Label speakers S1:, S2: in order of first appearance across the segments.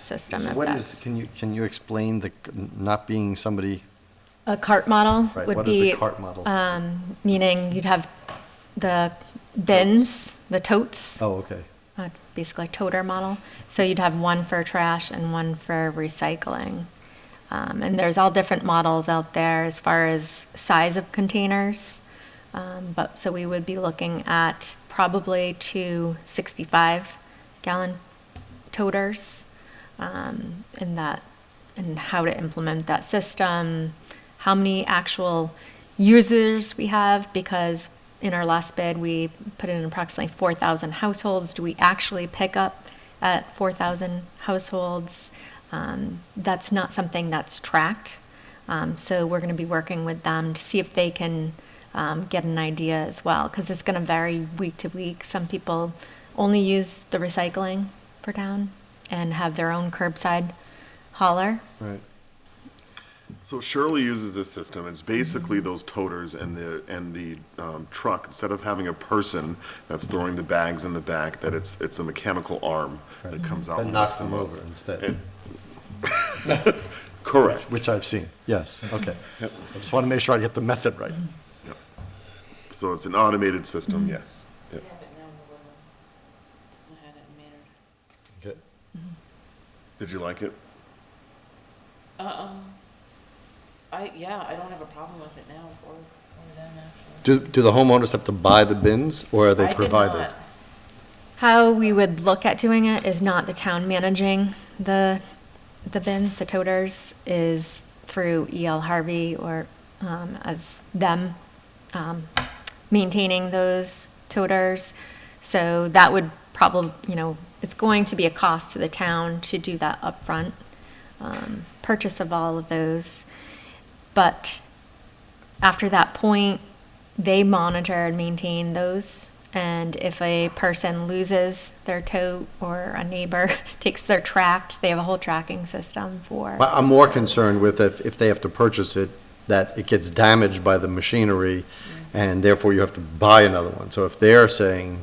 S1: system
S2: So
S1: if
S2: what is,
S1: that's.
S2: can you, can you explain the, c- not being somebody,
S1: A cart model
S2: right,
S1: would
S2: what is the
S1: be,
S2: cart model?
S1: um, meaning you'd have the bins, the totes,
S2: Oh, okay,
S1: uh, basically toter model. So you'd have one for trash and one for recycling. Um, and there's all different models out there as far as size of containers. Um, but so we would be looking at probably two 65 gallon toters um, and that and how to implement that system, how many actual users we have because in our last bid we put in approximately 4,000 households. Do we actually pick up at 4,000 households? Um, that's not something that's tracked. Um, so we're going to be working with them to see if they can um, get an idea as well, because it's going to vary week to week. Some people only use the recycling for town and have their own curbside hauler.
S2: right.
S3: So Shirley uses this system. It's basically those toters and the, and the um, truck, instead of having a person that's throwing the bags in the back, that it's, it's a mechanical arm that comes out.
S2: That
S3: and
S2: knocks
S3: lifts
S2: them
S3: up.
S2: over instead,
S3: Correct.
S2: which I've seen, yes, okay. I just want to make sure I get the method right.
S3: So it's an automated
S2: Mm-hmm.
S3: system, yes. Yeah.
S4: Yeah, but no, it wasn't. I had it metered.
S2: Okay.
S3: Did you like it?
S4: Uh-um. Uh-uh. I, yeah, I don't have a problem with it now or, or then actually.
S2: Do, do the homeowners have to buy the bins, or are
S4: I
S2: they
S4: did
S2: provided?
S4: not-
S1: How we would look at doing it is not the town managing the, the bins, the toters, is through E.L. Harvey or um, as them um, maintaining those toters. So that would probably, you know, it's going to be a cost to the town to do that upfront, um, purchase of all of those. But after that point, they monitor and maintain those. And if a person loses their tote or a neighbor takes their tract, they have a whole tracking system for.
S2: But I'm more concerned with if, if they have to purchase it, that it gets damaged by the machinery,
S1: Mm-hmm.
S2: and therefore you have to buy another one. So if they're saying,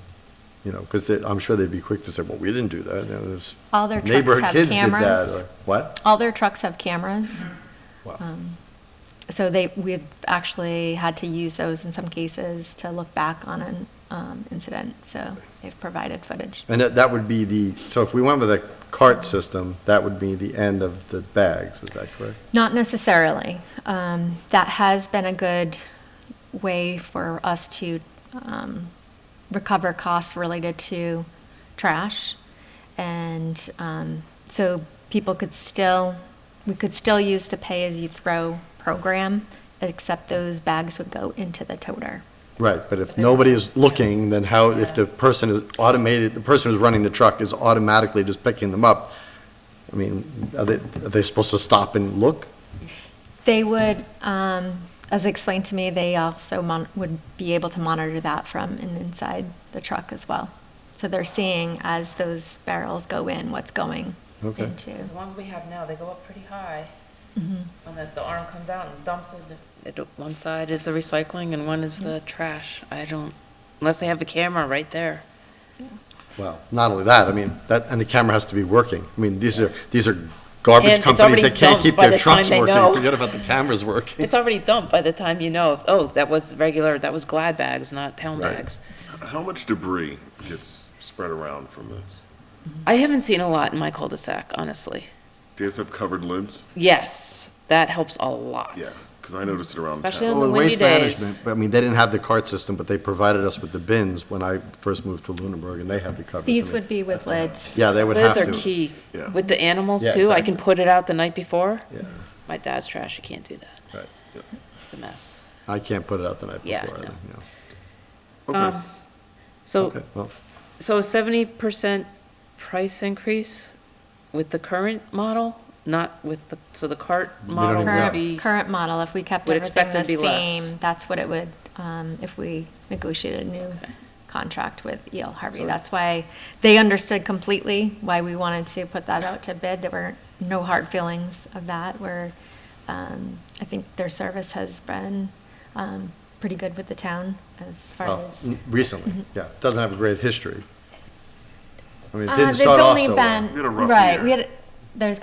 S2: you know, because I'm sure they'd be quick to say, well, we didn't do that, you know, there's.
S1: All their trucks
S2: neighborhood
S1: have
S2: kids did that,"
S1: cameras.
S2: or- What?
S1: All their trucks have cameras. Um,
S2: Wow.
S1: So they, we've actually had to use those in some cases to look back on an um, incident. So they've provided footage.
S2: And that, that would be the, so if we went with a cart system, that would be the end of the bags, is that correct?
S1: Not necessarily. Um, that has been a good way for us to um, recover costs related to trash. And um, so people could still, we could still use the pay as you throw program, except those bags would go into the toter.
S2: Right, but if nobody is looking, then how, if the person is automated, the person who's running the truck is automatically just picking them up, I mean, are they, are they supposed to stop and look?
S1: They would, um, as explained to me, they also mon- would be able to monitor that from and inside the truck as well. So they're seeing as those barrels go in, what's going
S2: Okay.
S1: into.
S4: 'cause The ones we have now, they go up pretty high. And then the arm comes out and dumps it. it. One side is the recycling and one is the trash. I don't, unless they have the camera right there.
S2: Well, not only that, I mean, that, and the camera has to be working. I mean, these are, these are garbage
S4: And it's
S2: companies
S4: already
S2: that can't
S4: dumped
S2: keep
S4: by
S2: their
S4: the time
S2: trucks
S4: they
S2: working.
S4: know.
S2: Forget about the cameras working.
S4: It's already dumped by the time you know, oh, that was regular, that was Glad bags, not town
S2: Right.
S4: bags.
S3: How much debris gets spread around from this?
S4: I haven't seen a lot in my cul-de-sac, honestly.
S3: Do you guys have covered lids?
S4: Yes, that helps a lot.
S3: Yeah, because I noticed it around
S4: Especially
S3: town.
S4: on- the
S2: Well,
S4: windy
S2: Waste
S4: days.
S2: management, but I mean, they didn't have the cart system, but they provided us with the bins when I first moved to Lunenburg, and they had the covers. I
S1: These
S2: mean,
S1: would be with lids.
S2: Yeah, they would have
S4: Lids
S2: to.
S4: are key.
S3: Yeah.
S4: With the animals
S2: Yeah,
S4: too, I
S2: exactly.
S4: can put it out the night before.
S2: Yeah,
S4: My dad's trash, you can't do that.
S2: right.
S4: It's a mess.
S2: I can't put it out the night
S4: Yeah,
S2: before, either,
S4: no.
S2: you know.
S3: Okay,
S4: So,
S2: Okay, well, oh,
S4: so seventy percent price increase with the current model, not with the, so the cart
S2: We don't
S4: model
S2: even know.
S4: would
S1: Current,
S4: be,
S1: current model, if we kept
S4: Would
S1: everything
S4: expect
S1: the
S4: it to be less.
S1: same, that's what it would, um, if we negotiated a new contract with E.L. Harvey.
S2: So-
S1: That's why they understood completely why we wanted to put that out to bid. There were no hard feelings of that, where, um, I think their service has been, um, pretty good with the town as far
S2: well,
S1: as.
S2: n- recently,
S4: Mm-hmm.
S2: yeah, it doesn't have a great history. I mean, it
S1: Uh,
S2: didn't
S1: they've
S2: start off
S1: only
S2: so well.
S1: been-
S3: We had a rough
S1: Right,
S3: year.
S1: we had, there's